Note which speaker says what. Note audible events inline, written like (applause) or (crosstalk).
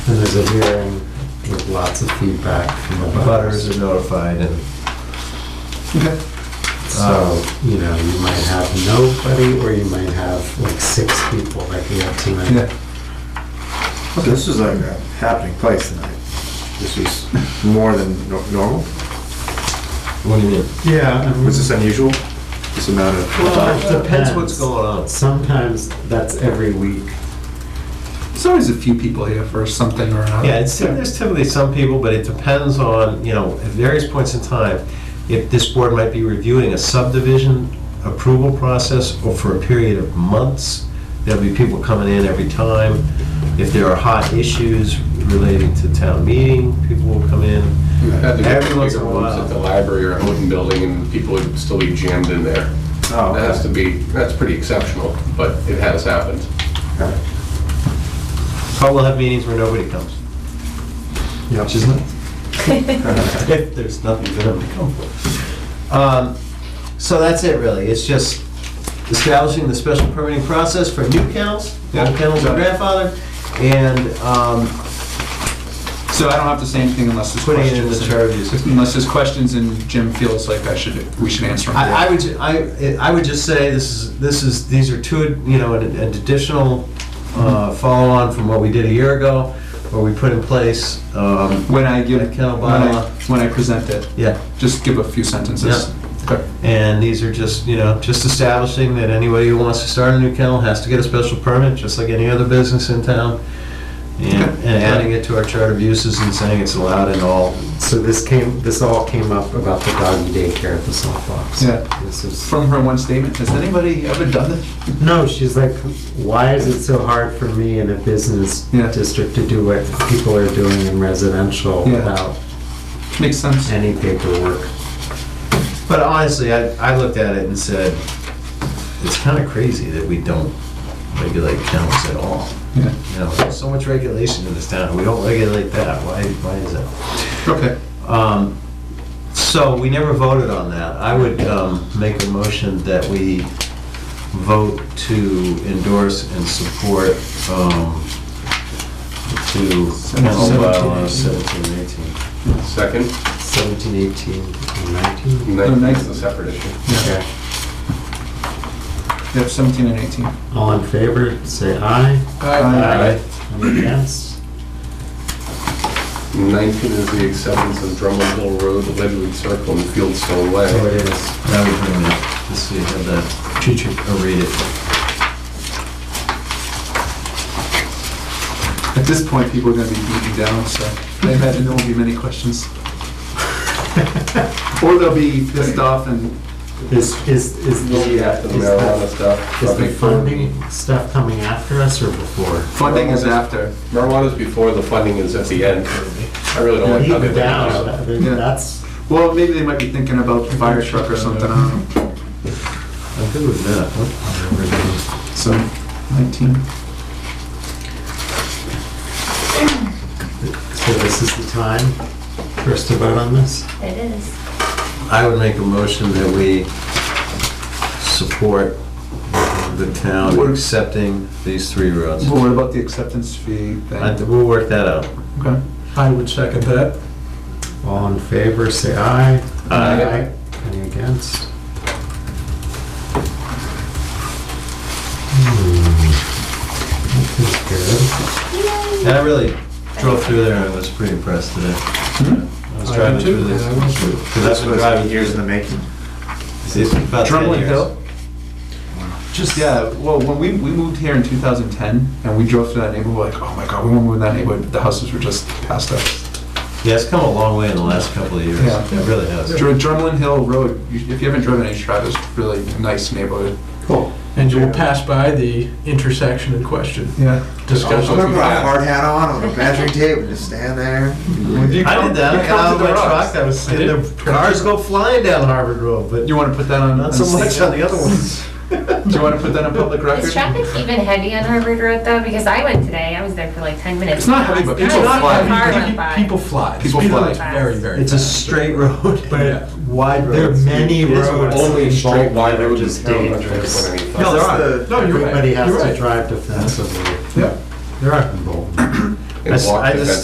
Speaker 1: And there's a hearing with lots of feedback from the
Speaker 2: Butters
Speaker 1: butters.
Speaker 2: are notified and. Okay.
Speaker 1: So, you know, you might have nobody or you might have like six people like we have tonight.
Speaker 2: Yeah,
Speaker 3: This is like a happening place tonight. This is more than no- normal.
Speaker 2: what do you mean?
Speaker 1: Yeah.
Speaker 3: Was this unusual? This amount of,
Speaker 2: Well, it depends what's going on.
Speaker 1: Sometimes that's every week.
Speaker 4: There's always a few people here for something or another.
Speaker 2: Yeah, it's, there's typically some people, but it depends on, you know, at various points in time, if this board might be reviewing a subdivision approval process or for a period of months, there'll be people coming in every time. If there are hot issues relating to town meeting, people will come in.
Speaker 5: Had to get
Speaker 2: Every once in
Speaker 5: bigger
Speaker 2: a
Speaker 5: ones
Speaker 2: while.
Speaker 5: At the library or Houghton Building, and people would still be jammed in there.
Speaker 3: oh,
Speaker 5: That has to be, that's pretty exceptional, but it has happened.
Speaker 3: okay.
Speaker 2: But we'll have meetings where nobody comes,
Speaker 1: Yep.
Speaker 2: which is nice. (laughs) If there's nothing for them to come for. Um, So that's it really, it's just establishing the special permitting process for new kennels, old kennels are grandfathered, and um,
Speaker 4: So I don't have to say anything unless there's
Speaker 2: putting
Speaker 4: questions.
Speaker 2: it in the charges.
Speaker 4: (laughs) Unless there's questions and Jim feels like I should, we should answer them.
Speaker 2: I, I would, ju- I, I would just say this is, this is, these are two, you know, an an additional uh, follow-on from what we did a year ago, where we put in place, um,
Speaker 4: When I give,
Speaker 2: A kennel
Speaker 4: when I,
Speaker 2: bylaw.
Speaker 4: when I present it,
Speaker 2: yeah,
Speaker 4: just give a few sentences. Okay.
Speaker 2: And these are just, you know, just establishing that anybody who wants to start a new kennel has to get a special permit, just like any other business in town. And
Speaker 4: Okay.
Speaker 2: and adding it to our chart of uses and saying it's allowed in all.
Speaker 1: So this came, this all came up about the doggy daycare at the softbox.
Speaker 4: Yeah.
Speaker 1: This is,
Speaker 4: From her one statement, has anybody ever done this?
Speaker 1: no, she's like, why is it so hard for me in a business
Speaker 4: Yeah.
Speaker 1: district to do what people are doing in residential
Speaker 4: Yeah.
Speaker 1: without
Speaker 4: Makes sense.
Speaker 1: any paperwork?
Speaker 2: But honestly, I, I looked at it and said, it's kind of crazy that we don't regulate kennels at all.
Speaker 4: Yeah.
Speaker 2: You know, there's so much regulation in this town, we don't regulate that, why, why is that?
Speaker 4: Okay.
Speaker 2: Um, So we never voted on that. I would um, make a motion that we vote to endorse and support um, to kennel bylaw 1718.
Speaker 5: Second,
Speaker 1: 17, 18, and 19?
Speaker 5: ninth is a separate issue.
Speaker 1: Okay.
Speaker 4: Yep, 17 and 18.
Speaker 1: All in favor, say aye.
Speaker 4: Aye.
Speaker 1: Any against?
Speaker 5: Nineteen is the acceptance of Drummond Hill Road, Ledgewood Circle, and Fieldstone
Speaker 1: So it
Speaker 5: Way.
Speaker 1: is.
Speaker 2: That would bring it, let's see, have that, teacher, or read it.
Speaker 4: At this point, people are gonna be beaten down, so I imagine there won't be
Speaker 2: (laughs)
Speaker 4: many questions. Or they'll be pissed off and
Speaker 1: Is, is, is the, uh,
Speaker 5: After the
Speaker 1: is
Speaker 5: marijuana
Speaker 1: the,
Speaker 5: stuff.
Speaker 1: is the
Speaker 5: probably-
Speaker 1: funding stuff coming after us or before?
Speaker 4: funding is after.
Speaker 5: Marijuana's before, the funding is at the end. I really don't like how they
Speaker 1: Even
Speaker 5: did
Speaker 1: down,
Speaker 5: that.
Speaker 1: I mean,
Speaker 4: Yeah.
Speaker 1: that's,
Speaker 4: Well, maybe they might be thinking about the fire truck or something, I don't know.
Speaker 2: I'm good with that. What-
Speaker 4: So, 19.
Speaker 1: so this is the time for us to vote on this?
Speaker 6: It is.
Speaker 2: I would make a motion that we support the town accepting these three roads.
Speaker 4: Well, what about the acceptance fee
Speaker 2: I-
Speaker 4: thing?
Speaker 2: We'll work that out.
Speaker 4: Okay. I would second that.
Speaker 1: All in favor, say aye.
Speaker 2: Aye.
Speaker 1: Any against? Hmm, That
Speaker 2: And I really drove through there and was pretty impressed today.
Speaker 4: Hmm?
Speaker 2: I was driving through this. Because I've
Speaker 3: This
Speaker 2: been
Speaker 3: was
Speaker 2: driving here
Speaker 3: years in the making.
Speaker 2: since about 10
Speaker 4: Drummond
Speaker 2: years.
Speaker 4: Hill? Just, yeah, well, when we, we moved here in 2010, and we drove through that neighborhood, like, oh my god, we won't move in that neighborhood, but the houses were just past us.
Speaker 2: Yeah, it's come a long way in the last couple of years.
Speaker 4: Yeah.
Speaker 2: It really has.
Speaker 4: Dr- Drumlin Hill Road, you- if you haven't driven it, you should. It's a really nice neighborhood.
Speaker 1: was good. Cool.
Speaker 7: And you will pass by the intersection in question.
Speaker 4: Yeah.
Speaker 7: Discuss
Speaker 3: I'm
Speaker 7: with
Speaker 3: gonna
Speaker 7: you.
Speaker 3: put a hard hat on, on a measuring tape, and just stand there.
Speaker 2: I did that, I got out of my truck, I was
Speaker 7: I
Speaker 2: seeing
Speaker 7: did.
Speaker 2: the cars go flying down Harvard Road, but
Speaker 4: You wanna put that on?
Speaker 2: not so much on the other ones.
Speaker 4: Do you wanna put that on public record?
Speaker 6: Is traffic even heavy on Harvard Road though? Because I went today, I was there for like 10 minutes.
Speaker 4: It's not heavy, but
Speaker 6: I
Speaker 4: people fly.
Speaker 6: was so far went
Speaker 7: People-
Speaker 6: by.
Speaker 7: People fly. The
Speaker 4: People
Speaker 7: speed
Speaker 4: fly.
Speaker 7: limit's Very, very.
Speaker 2: It's a straight road,
Speaker 7: Yeah.
Speaker 2: but wide road.
Speaker 1: There are many roads.
Speaker 5: Only
Speaker 1: involved
Speaker 5: straight wide
Speaker 1: that are
Speaker 5: roads in
Speaker 1: just
Speaker 5: town.
Speaker 1: dangerous.
Speaker 4: No, there
Speaker 3: It's
Speaker 4: are.
Speaker 3: the-
Speaker 7: No, you're right.
Speaker 1: Everybody has
Speaker 7: You're
Speaker 1: to
Speaker 7: right.
Speaker 1: drive defensively.
Speaker 4: Yeah.
Speaker 1: They're up in Bolton.
Speaker 2: and
Speaker 8: I s-
Speaker 2: walk
Speaker 8: I
Speaker 2: the
Speaker 8: just-
Speaker 2: fence